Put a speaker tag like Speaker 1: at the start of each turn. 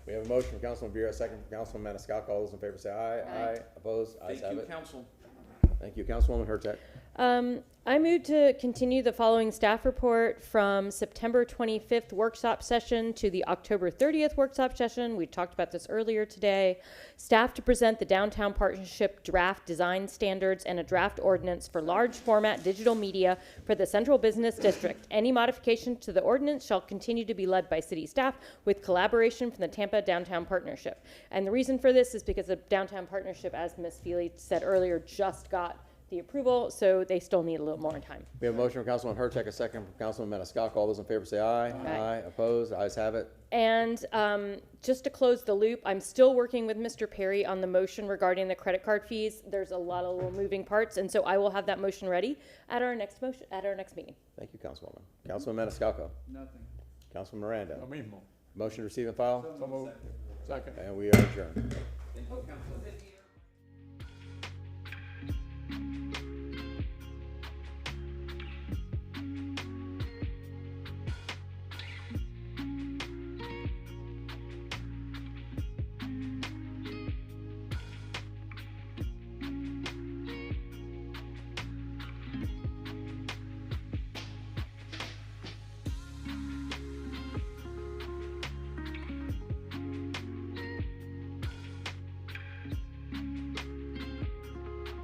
Speaker 1: We have a motion from Councilman Vera, second from Councilman Maniscalco. All those in favor say aye.
Speaker 2: Aye.
Speaker 1: Aye. Opposed? Ayes
Speaker 3: Thank
Speaker 1: have
Speaker 3: you,
Speaker 1: it.
Speaker 3: council.
Speaker 1: Thank you, Councilwoman Hurtak.
Speaker 2: Um, I move to continue the following staff report from September 25th workshop session to the October 30th workshop session. We talked about this earlier today. Staff to present the downtown partnership draft design standards and a draft ordinance for large format digital media for the central business district. Any modification to the ordinance shall continue to be led by city staff with collaboration from the Tampa Downtown Partnership. And the reason for this is because the downtown partnership, as Ms. Feely said earlier, just got the approval, so they still need a little more time.
Speaker 1: We have a motion from Councilman Hurtak, a second from Councilman Maniscalco. All those in favor say aye.
Speaker 2: Aye.
Speaker 1: Opposed? Ayes have it.
Speaker 2: And um, just to close the loop, I'm still working with Mr. Perry on the motion regarding the credit card fees. There's a lot of little moving parts, and so I will have that motion ready at our next motion, at our next meeting.
Speaker 1: Thank you, Councilwoman.
Speaker 4: Mm-hmm.
Speaker 1: Councilman Maniscalco.
Speaker 3: Nothing.
Speaker 1: Councilman Miranda.
Speaker 4: Lo mismo.
Speaker 1: Motion to receive and file.
Speaker 4: So moved. Second.
Speaker 1: And we are adjourned.
Speaker 3: Thank you, council.